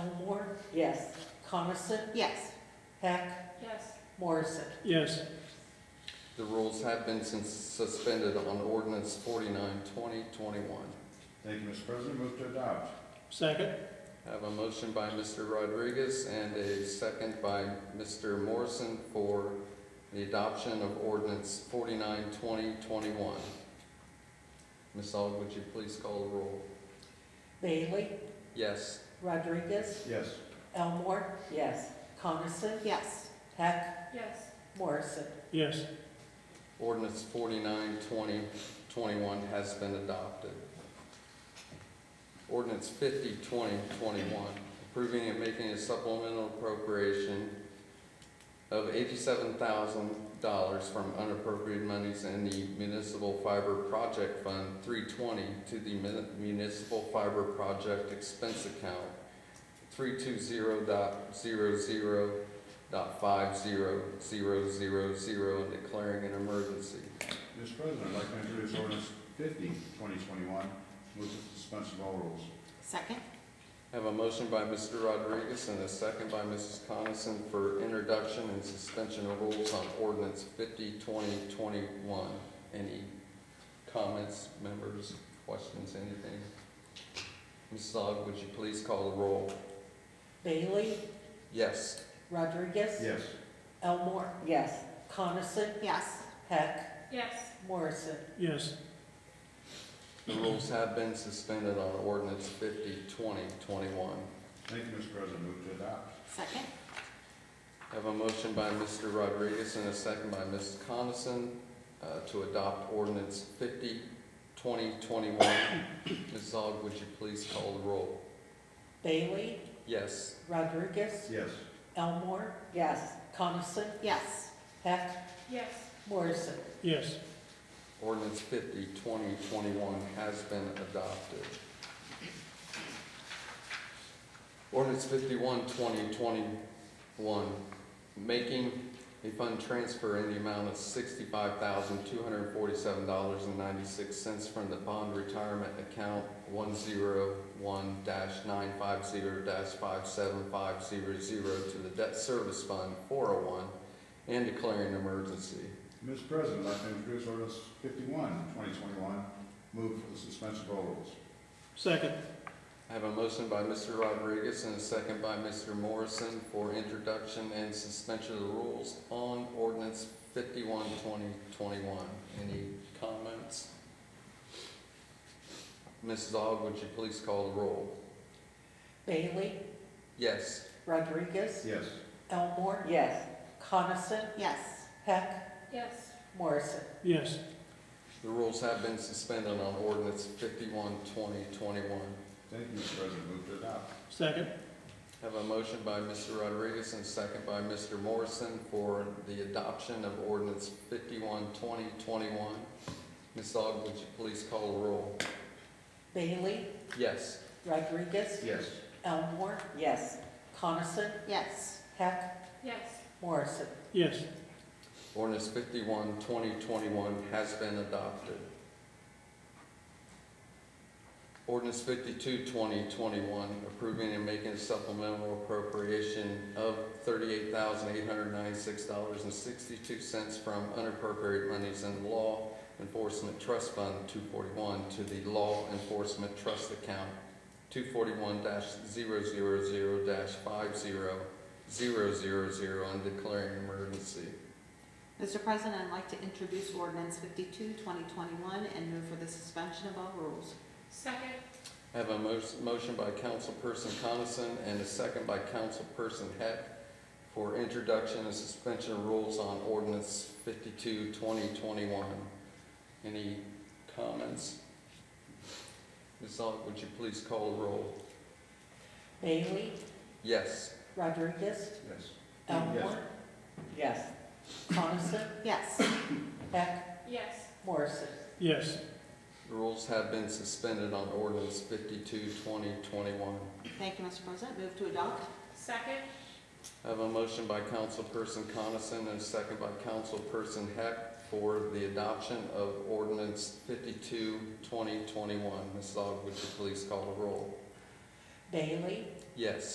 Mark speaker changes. Speaker 1: Elmore,
Speaker 2: Yes.
Speaker 1: Coniston,
Speaker 3: Yes.
Speaker 1: Heck,
Speaker 3: Yes.
Speaker 1: Morrison.
Speaker 4: yes,
Speaker 5: The rules have been sus- suspended on ordinance 49 2021.
Speaker 6: Thank you, Mr. President. Move to adopt.
Speaker 4: second,
Speaker 5: I have a motion by Mr. Rodriguez and a second by Mr. Morrison for the adoption of ordinance 49 2021. Ms. Aug, would you please call the roll?
Speaker 1: Bailey,
Speaker 5: Yes.
Speaker 1: Rodriguez,
Speaker 6: Yes.
Speaker 1: Elmore,
Speaker 2: Yes.
Speaker 1: Coniston,
Speaker 3: Yes.
Speaker 1: Heck,
Speaker 3: Yes.
Speaker 1: Morrison.
Speaker 4: yes,
Speaker 5: Ordinance 49 2021 has been adopted. Ordinance 50 2021 approving and making a supplemental appropriation of eighty-seven thousand dollars from unappropriated monies in the Municipal Fiber Project Fund three twenty to the Mun- Municipal Fiber Project Expense Account three two zero dot zero zero dot five zero zero zero zero and declaring an emergency.
Speaker 6: Mr. President, I'd like to introduce ordinance 50, 2021. Move to suspension of all rules.
Speaker 3: Second?
Speaker 5: I have a motion by Mr. Rodriguez and a second by Mrs. Coniston for introduction and suspension of rules on ordinance 50 2021. Any comments, members, questions, anything? Mrs. Aug, would you please call the roll?
Speaker 1: Bailey,
Speaker 5: Yes.
Speaker 1: Rodriguez,
Speaker 6: Yes.
Speaker 1: Elmore,
Speaker 2: Yes.
Speaker 1: Coniston,
Speaker 3: Yes.
Speaker 1: Heck,
Speaker 3: Yes.
Speaker 1: Morrison.
Speaker 4: yes,
Speaker 5: The rules have been suspended on ordinance 50 2021.
Speaker 6: Thank you, Mr. President. Move to adopt.
Speaker 3: Second?
Speaker 5: I have a motion by Mr. Rodriguez and a second by Ms. Coniston uh, to adopt ordinance 50, 2021. Ms. Aug, would you please call the roll?
Speaker 1: Bailey,
Speaker 5: Yes.
Speaker 1: Rodriguez,
Speaker 6: Yes.
Speaker 1: Elmore,
Speaker 2: Yes.
Speaker 1: Coniston,
Speaker 3: Yes.
Speaker 1: Heck,
Speaker 3: Yes.
Speaker 1: Morrison.
Speaker 4: yes,
Speaker 5: Ordinance 50, 2021 has been adopted. Ordinance 51, 2021, making a fund transfer in the amount of $65,247.96 from the bond retirement account 101-950-57500 to the debt service fund 401 and declaring an emergency.
Speaker 6: Mr. President, I'd like to introduce ordinance 51, 2021. Move for the suspension of all rules.
Speaker 4: second,
Speaker 5: I have a motion by Mr. Rodriguez and a second by Mr. Morrison for introduction and suspension of the rules on ordinance 51 2021. Any comments? Mrs. Aug, would you please call the roll?
Speaker 1: Bailey,
Speaker 5: Yes.
Speaker 1: Rodriguez,
Speaker 6: Yes.
Speaker 1: Elmore,
Speaker 2: Yes.
Speaker 1: Coniston,
Speaker 3: Yes.
Speaker 1: Heck,
Speaker 3: Yes.
Speaker 1: Morrison.
Speaker 4: yes,
Speaker 5: The rules have been suspended on ordinance 51 2021.
Speaker 6: Thank you, Mr. President. Move to adopt.
Speaker 4: second,
Speaker 5: I Have a motion by Mr. Rodriguez and a second by Mr. Morrison for the adoption of ordinance 51-2021. Ms. Aug, would you please call the roll?
Speaker 1: Bailey,
Speaker 5: Yes.
Speaker 1: Rodriguez,
Speaker 6: Yes.
Speaker 1: Elmore,
Speaker 2: Yes.
Speaker 1: Coniston,
Speaker 3: Yes.
Speaker 1: Heck,
Speaker 3: Yes.
Speaker 1: Morrison.
Speaker 4: yes,
Speaker 5: Ordinance 51-2021 has been adopted. Ordinance 52-2021 approving and making a supplemental appropriation of thirty-eight thousand eight hundred ninety-six dollars and sixty-two cents from unappropriated monies in the Law Enforcement Trust Fund two forty-one to the Law Enforcement Trust Account two forty-one 0 five zero zero zero zero and declaring emergency.
Speaker 3: Mr. President, I'd like to introduce ordinance 52, 2021, and move for the suspension of all rules. Second?
Speaker 5: I have a mo- motion by Councilperson Coniston and a second by Councilperson Heck for introduction and suspension of rules on ordinance 52-2021. Any comments? Ms. Aug, would you please call the roll?
Speaker 1: Bailey,
Speaker 5: Yes.
Speaker 1: Rodriguez,
Speaker 6: Yes.
Speaker 1: Elmore,
Speaker 2: Yes.
Speaker 1: Coniston,
Speaker 3: Yes.
Speaker 1: Heck,
Speaker 3: Yes.
Speaker 1: Morrison.
Speaker 4: yes,
Speaker 5: The rules have been suspended on ordinance 52-2021.
Speaker 3: Thank you, Mr. President. Move to adopt. Second?
Speaker 5: I have a motion by Councilperson Coniston and a second by Councilperson Heck for the adoption of ordinance 52-2021. Ms. Aug, would you please call the roll?
Speaker 1: Bailey,
Speaker 5: Yes.